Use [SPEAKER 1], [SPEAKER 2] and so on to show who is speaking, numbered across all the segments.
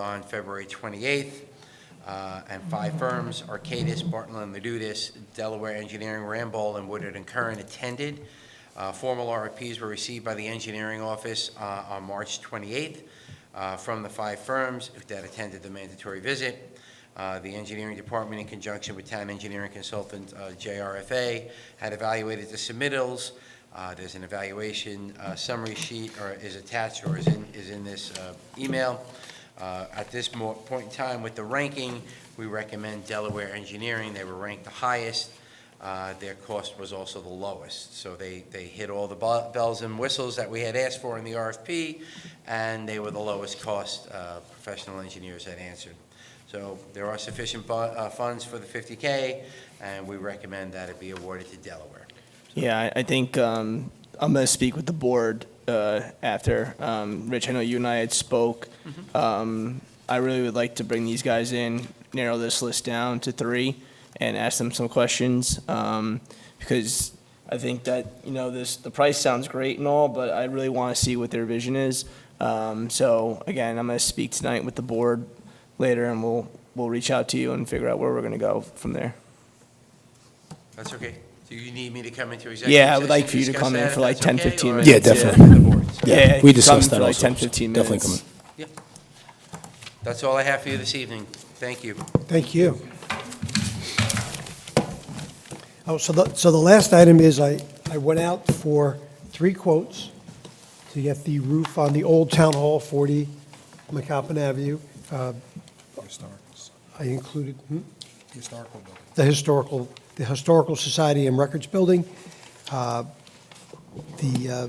[SPEAKER 1] on February 28th, uh, and five firms, Arcadis, Barton and Ladudis, Delaware Engineering, Ramboll, and Woodard and Curran attended. Uh, Formal RFPs were received by the engineering office uh, on March 28th uh, from the five firms that attended the mandatory visit. Uh, The engineering department, in conjunction with town engineering consultant uh, JRFA, had evaluated the submittals. Uh, There's an evaluation uh, summary sheet, or is attached, or is in, is in this uh, email. Uh, At this mo- point in time, with the ranking, we recommend Delaware Engineering. They were ranked the highest. Uh, Their cost was also the lowest. So they, they hit all the bu- bells and whistles that we had asked for in the RFP, and they were the lowest cost uh, professional engineers that answered. So there are sufficient bu- uh, funds for the 50K, and we recommend that it be awarded to Delaware.
[SPEAKER 2] Yeah, I, I think um, I'm going to speak with the board uh, after. Um, Rich, I know you and I had spoke. Um, I really would like to bring these guys in, narrow this list down to three, and ask them some questions um, because I think that you know this the price sounds great and all, but I really want to see what their vision is. Um, so again, I'm going to speak tonight with the board later, and we'll we'll reach out to you and figure out where we're going to go from there.
[SPEAKER 1] That's okay? Do you need me to come into executive
[SPEAKER 2] Yeah, I would
[SPEAKER 1] session
[SPEAKER 2] like for you to
[SPEAKER 1] discuss
[SPEAKER 2] come in
[SPEAKER 1] that,
[SPEAKER 2] for
[SPEAKER 1] if
[SPEAKER 2] like
[SPEAKER 1] that's
[SPEAKER 2] 10,
[SPEAKER 1] okay,
[SPEAKER 2] 15
[SPEAKER 1] or-
[SPEAKER 2] minutes, Yeah,
[SPEAKER 3] definitely.
[SPEAKER 1] The board's-
[SPEAKER 2] Yeah,
[SPEAKER 3] We
[SPEAKER 2] come
[SPEAKER 3] discussed
[SPEAKER 2] for
[SPEAKER 3] that
[SPEAKER 2] like
[SPEAKER 3] also.
[SPEAKER 2] 10, 15
[SPEAKER 3] Definitely
[SPEAKER 2] minutes.
[SPEAKER 3] come in.
[SPEAKER 1] That's all I have for you this evening. Thank you.
[SPEAKER 4] Thank you. Oh, so the, so the last item is I, I went out for three quotes to get the roof on the old Town Hall, 40 McCoppin Avenue. Uh,
[SPEAKER 5] Historical,
[SPEAKER 4] I included, hmm?
[SPEAKER 5] historical building.
[SPEAKER 4] the historical, the Historical Society and Records Building. Uh, The uh,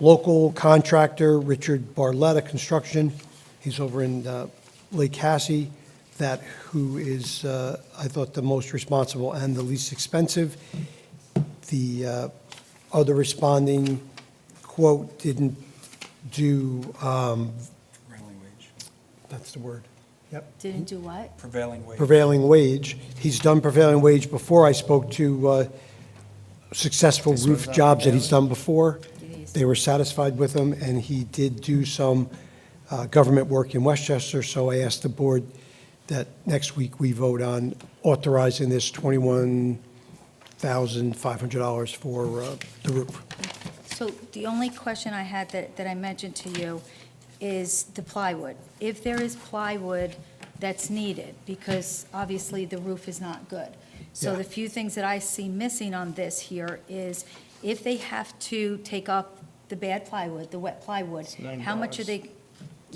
[SPEAKER 4] local contractor, Richard Barletta Construction, he's over in uh, Lake Hassie, that who is, uh, I thought, the most responsible and the least expensive. The uh, other responding quote didn't do, um,
[SPEAKER 5] Prevailing wage.
[SPEAKER 4] that's the word, yep,
[SPEAKER 6] Didn't do what?
[SPEAKER 5] Prevailing wage.
[SPEAKER 4] prevailing wage. He's done prevailing wage before. I spoke to uh, successful roof jobs that he's done before. They were satisfied with him, and he did do some uh, government work in Westchester, so I asked the board that next week we vote on authorizing this $21,500 for uh, the roof.
[SPEAKER 6] So the only question I had that, that I mentioned to you is the plywood. If there is plywood that's needed, because obviously the roof is not good. So
[SPEAKER 4] Yeah.
[SPEAKER 6] the few things that I see missing on this here is if they have to take off the bad plywood, the wet plywood, how much are
[SPEAKER 2] $9.
[SPEAKER 6] they?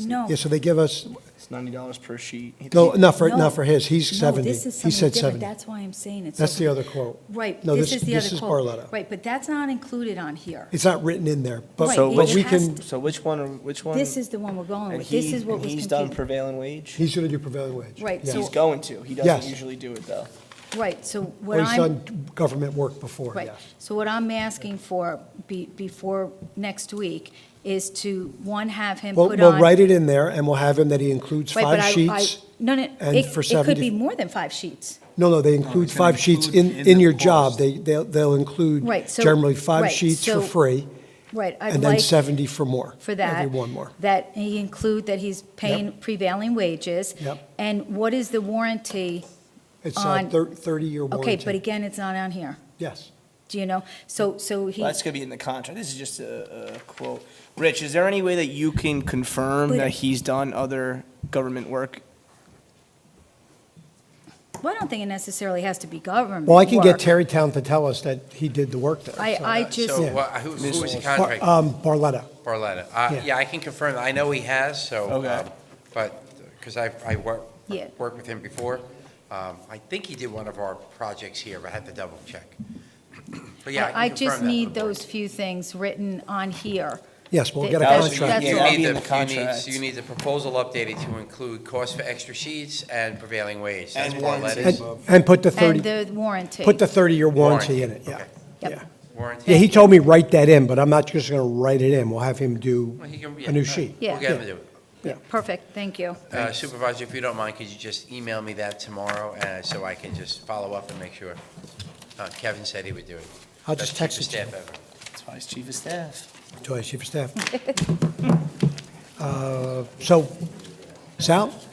[SPEAKER 6] No.
[SPEAKER 4] Yeah, so they give us,
[SPEAKER 2] It's ninety dollars per sheet.
[SPEAKER 4] no, not for, not
[SPEAKER 6] No.
[SPEAKER 4] for his, he's
[SPEAKER 6] No,
[SPEAKER 4] 70.
[SPEAKER 6] this is
[SPEAKER 4] He
[SPEAKER 6] something
[SPEAKER 4] said
[SPEAKER 6] different.
[SPEAKER 4] 70.
[SPEAKER 6] That's why I'm saying it's.
[SPEAKER 4] That's
[SPEAKER 6] so-
[SPEAKER 4] the other quote.
[SPEAKER 6] Right,
[SPEAKER 4] No,
[SPEAKER 6] this
[SPEAKER 4] this-
[SPEAKER 6] is the
[SPEAKER 4] this
[SPEAKER 6] other
[SPEAKER 4] is
[SPEAKER 6] quote.
[SPEAKER 4] Barletta.
[SPEAKER 6] Right, but that's not included on here.
[SPEAKER 4] It's not written in there, but
[SPEAKER 6] Right, it
[SPEAKER 4] but we
[SPEAKER 6] has
[SPEAKER 4] can,
[SPEAKER 6] to-
[SPEAKER 2] So which one, are- which one?
[SPEAKER 6] This is the one we're going
[SPEAKER 2] and
[SPEAKER 6] with. This
[SPEAKER 2] he-
[SPEAKER 6] is what
[SPEAKER 2] and
[SPEAKER 6] was
[SPEAKER 2] He's done
[SPEAKER 6] confusing.
[SPEAKER 2] prevailing wage?
[SPEAKER 4] he's going to do prevailing wage.
[SPEAKER 6] Right,
[SPEAKER 4] Yeah.
[SPEAKER 6] so-
[SPEAKER 2] He's going to. He
[SPEAKER 4] Yes.
[SPEAKER 2] doesn't usually do it, though.
[SPEAKER 6] Right, so what
[SPEAKER 4] Well, he's
[SPEAKER 6] I'm.
[SPEAKER 4] done government work before,
[SPEAKER 6] Right.
[SPEAKER 4] yes.
[SPEAKER 6] So what I'm asking for be, before next week is to, one, have him
[SPEAKER 4] We'll,
[SPEAKER 6] put on.
[SPEAKER 4] we'll write it in there, and we'll have him that he includes
[SPEAKER 6] Right, but
[SPEAKER 4] five
[SPEAKER 6] I- I-
[SPEAKER 4] sheets.
[SPEAKER 6] No, no,
[SPEAKER 4] and
[SPEAKER 6] it,
[SPEAKER 4] for
[SPEAKER 6] it could
[SPEAKER 4] 70
[SPEAKER 6] be more than five sheets.
[SPEAKER 4] No, no, they include
[SPEAKER 5] Oh, it's gonna
[SPEAKER 4] five sheets in,
[SPEAKER 5] include in
[SPEAKER 4] in
[SPEAKER 5] the
[SPEAKER 4] your job.
[SPEAKER 5] cost.
[SPEAKER 4] They, they'll, they'll include
[SPEAKER 6] Right, so-
[SPEAKER 4] generally five
[SPEAKER 6] right,
[SPEAKER 4] sheets for
[SPEAKER 6] so
[SPEAKER 4] free,
[SPEAKER 6] Right, I'd
[SPEAKER 4] and then
[SPEAKER 6] like
[SPEAKER 4] 70 for more.
[SPEAKER 6] for that.
[SPEAKER 4] Every one more.
[SPEAKER 6] That he include that he's paying prevailing wages.
[SPEAKER 4] Yep.
[SPEAKER 6] And what is the warranty?
[SPEAKER 4] It's a
[SPEAKER 6] on-
[SPEAKER 4] 30-year warranty.
[SPEAKER 6] Okay, but again, it's not on here,
[SPEAKER 4] Yes.
[SPEAKER 6] do you know? So, so he.
[SPEAKER 2] Well, That's gonna be in the contract. This is just a, a quote. Rich, is there any way that you can confirm
[SPEAKER 6] But-
[SPEAKER 2] that he's done other government work?
[SPEAKER 6] Well, I don't think it necessarily has to be government
[SPEAKER 4] Well, I can get
[SPEAKER 6] work.
[SPEAKER 4] Terrytown to tell us that he did the work there.
[SPEAKER 6] I,
[SPEAKER 4] so-
[SPEAKER 6] I just,
[SPEAKER 1] So wha- who who was the
[SPEAKER 4] Bar-
[SPEAKER 1] contract?
[SPEAKER 4] Um, Barletta.
[SPEAKER 1] Barletta. Uh,
[SPEAKER 4] Yeah.
[SPEAKER 1] Yeah, I can confirm, that. I know he has, so,
[SPEAKER 2] Okay.
[SPEAKER 1] um, but, because I, I worked,
[SPEAKER 6] Yeah.
[SPEAKER 1] worked with him before. Um, I think he did one of our projects here, but I have to double check. But yeah,
[SPEAKER 6] I
[SPEAKER 1] I can confirm that.
[SPEAKER 6] just
[SPEAKER 1] for the
[SPEAKER 6] need
[SPEAKER 1] board.
[SPEAKER 6] those few things written on here.
[SPEAKER 4] Yes, we'll get a
[SPEAKER 2] That was-
[SPEAKER 4] contract.
[SPEAKER 2] yeah,
[SPEAKER 1] You
[SPEAKER 2] that'll
[SPEAKER 1] need
[SPEAKER 2] be in
[SPEAKER 1] the- you
[SPEAKER 2] the
[SPEAKER 1] need-
[SPEAKER 2] contract.
[SPEAKER 1] You need the proposal updated to include cost for extra sheets and prevailing wage. That's
[SPEAKER 2] And
[SPEAKER 1] Barletta's.
[SPEAKER 4] And, and put the
[SPEAKER 6] And
[SPEAKER 4] 30,
[SPEAKER 6] the warranty.
[SPEAKER 4] put the 30-year warranty
[SPEAKER 1] Warranty,
[SPEAKER 4] in it, yeah.
[SPEAKER 1] okay.
[SPEAKER 6] Yep.
[SPEAKER 4] Yeah.
[SPEAKER 1] Warranty.
[SPEAKER 4] Yeah, he told me write that in, but I'm not just going to write it in. We'll have him do
[SPEAKER 1] Well, he can- yeah,
[SPEAKER 4] a new
[SPEAKER 1] all
[SPEAKER 4] sheet.
[SPEAKER 1] right. We'll
[SPEAKER 6] Yeah.
[SPEAKER 1] get him to do it.
[SPEAKER 6] Perfect, thank you.
[SPEAKER 1] Uh, Supervisor, if you don't mind, could you just email me that tomorrow, uh, so I can just follow up and make sure? Uh, Kevin said he would do it.
[SPEAKER 4] I'll
[SPEAKER 1] Best
[SPEAKER 4] just
[SPEAKER 1] chief
[SPEAKER 4] text it
[SPEAKER 1] of
[SPEAKER 4] to
[SPEAKER 1] staff ever.
[SPEAKER 2] That's why he's chief of staff.
[SPEAKER 4] Joyce, Chief of Staff. Uh, So Sal?